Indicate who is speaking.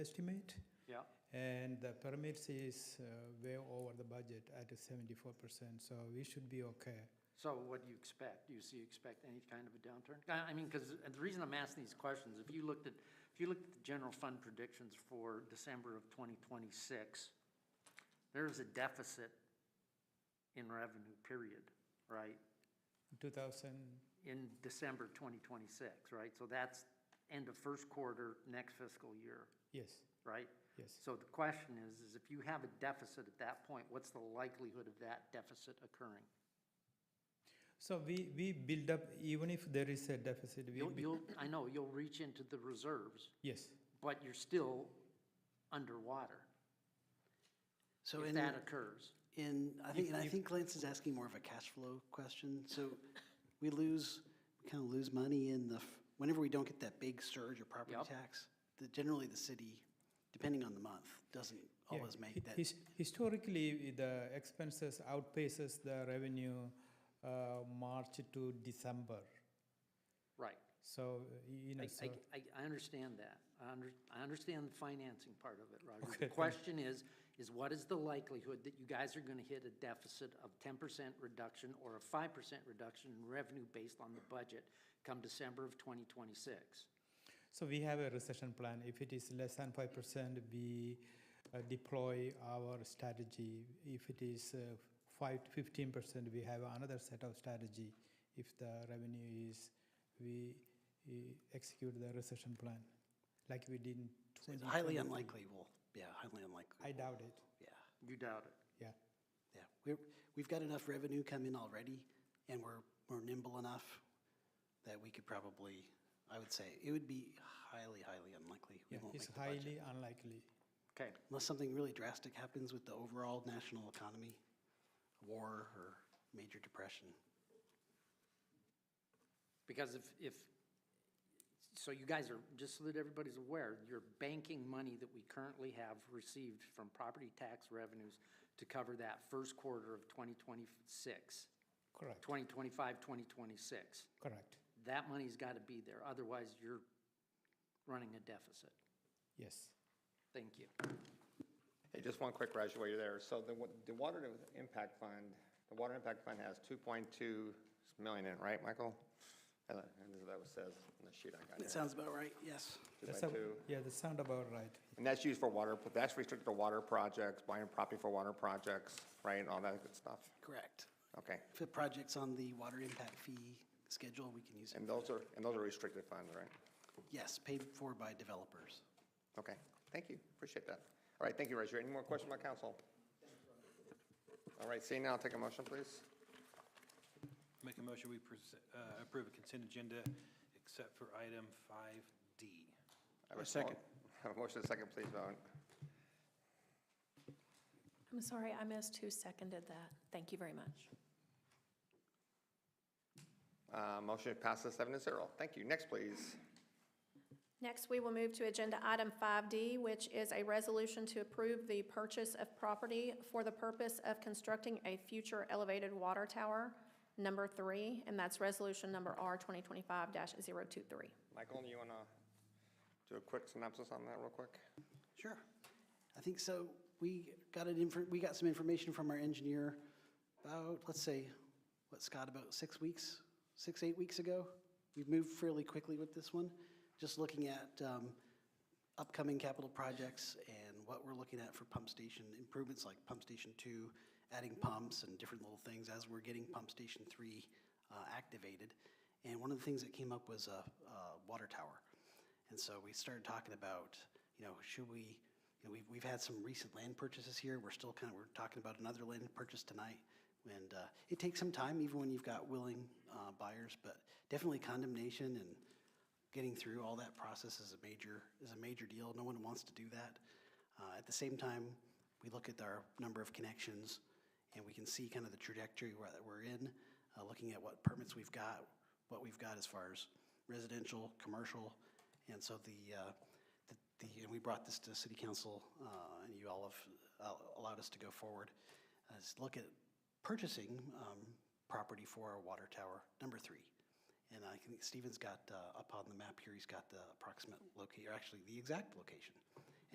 Speaker 1: estimate,
Speaker 2: Yeah,
Speaker 1: and the permits is uh, way over the budget at 74%, so we should be okay.
Speaker 2: so what do you expect? Do you see, expect any kind of a downturn? I, I mean, because the reason I'm asking these questions, if you looked at, if you looked at the general fund predictions for December of 2026, there is a deficit in revenue, period, right?
Speaker 1: 2000,
Speaker 2: In December 2026, right? So that's end of first quarter, next fiscal year,
Speaker 1: yes,
Speaker 2: right?
Speaker 1: yes.
Speaker 2: So the question is, is if you have a deficit at that point, what's the likelihood of that deficit occurring?
Speaker 1: So we, we build up, even if there is a deficit, we,
Speaker 2: You'll,
Speaker 1: bu-
Speaker 2: you'll, I know, you'll reach into the reserves,
Speaker 1: yes,
Speaker 2: but you're still underwater
Speaker 3: So
Speaker 2: if
Speaker 3: in,
Speaker 2: that occurs.
Speaker 3: in, I think, and I think Lance is asking more of a cash flow question. So we lose, we kind of lose money in the, f- whenever we don't get that big surge of property
Speaker 2: Yep.
Speaker 3: tax, the, generally the city, depending on the month, doesn't
Speaker 1: Yeah,
Speaker 3: always
Speaker 1: hi-
Speaker 3: make that.
Speaker 1: his- Historically, the expenses outpaces the revenue uh, March to December.
Speaker 2: Right.
Speaker 1: So, y- you know,
Speaker 2: I,
Speaker 1: so,
Speaker 2: I, I I understand that. I under, I understand the financing part of it, Roger.
Speaker 1: Okay.
Speaker 2: The question is, is what is the likelihood that you guys are gonna hit a deficit of ten percent reduction or a five percent reduction in revenue based on the budget come December of twenty twenty-six?
Speaker 1: so we have a recession plan. If it is less than 5%, we uh, deploy our strategy. If it is uh, 5 to 15%, we have another set of strategy. If the revenue is, we uh, execute the recession plan like we did in
Speaker 3: So
Speaker 1: 20.
Speaker 3: it's highly unlikely we'll, yeah, highly unlikely.
Speaker 1: I doubt it.
Speaker 3: Yeah,
Speaker 2: You doubt it.
Speaker 1: Yeah.
Speaker 3: yeah. We're, we've got enough revenue come in already and we're, we're nimble enough that we could probably, I would say, it would be highly, highly unlikely. we
Speaker 1: yeah.
Speaker 3: won't
Speaker 1: It's
Speaker 3: make the budget.
Speaker 1: highly unlikely.
Speaker 2: Okay.
Speaker 3: unless something really drastic happens with the overall national economy, war or major depression.
Speaker 2: Because if, if, so you guys are, just so that everybody's aware, you're banking money that we currently have received from property tax revenues to cover that first quarter of 2026,
Speaker 1: Correct.
Speaker 2: 2025, 2026.
Speaker 1: Correct.
Speaker 2: That money's got to be there, otherwise you're running a deficit.
Speaker 1: Yes.
Speaker 2: Thank you.
Speaker 4: Hey, just one quick graduator there. So the, wa- the water impact fund, the water impact fund has two point two million in, it, right, Michael? Uh, And that's what that says in the sheet I got
Speaker 3: That
Speaker 4: here.
Speaker 3: sounds about right, yes.
Speaker 4: Two
Speaker 1: That's
Speaker 4: by
Speaker 1: a-
Speaker 4: two.
Speaker 1: Yeah, that sound about right.
Speaker 4: And that's used for water, but that's restricted to water projects, buying property for water projects, right, and all that good stuff.
Speaker 3: Correct.
Speaker 4: Okay.
Speaker 3: If it projects on the water impact fee schedule, we can use it.
Speaker 4: And those are, and those are restricted funds, right?
Speaker 3: Yes, paid for by developers.
Speaker 4: Okay, thank you, appreciate that. All right, thank you, Roger. Any more questions by council? All right, seeing now, take a motion, please.
Speaker 5: Make a motion, we pres- uh, approve a consent agenda except for item 5D.
Speaker 4: I have A second. Have a motion, and a second, please vote.
Speaker 6: I'm sorry, I missed who seconded that. Thank you very much.
Speaker 4: Uh, Motion passes seven to zero. Thank you. Next, please.
Speaker 6: Next, we will move to Agenda Item 5D, which is a resolution to approve the purchase of property for the purpose of constructing a future elevated water tower, number three, and that's Resolution Number R 2025-023.
Speaker 4: Michael, you want to do a quick synopsis on that real quick?
Speaker 3: Sure. I think so. We got an infor, we got some information from our engineer about, let's say, what, Scott, about six weeks, six, eight weeks ago? We've moved fairly quickly with this one, just looking at um, upcoming capital projects and what we're looking at for pump station improvements, like pump station two, adding pumps and different little things as we're getting pump station three uh, activated. And one of the things that came up was a, a water tower. And so we started talking about, you know, should we, you know, we've, we've had some recent land purchases here. We're still kind of, we're talking about another land purchase tonight. And uh, it takes some time, even when you've got willing uh, buyers, but definitely condemnation and getting through all that process is a major, is a major deal. No one wants to do that. Uh, At the same time, we look at our number of connections, and we can see kind of the trajectory where- that we're in, uh, looking at what permits we've got, what we've got as far as residential, commercial, and so the, uh, the- the, and we brought this to city council, uh, and you all have uh, allowed us to go forward, uh, is look at purchasing um, property for our water tower, number three. And I think Stephen's got, uh, up on the map here, he's got the approximate location, or actually the exact location.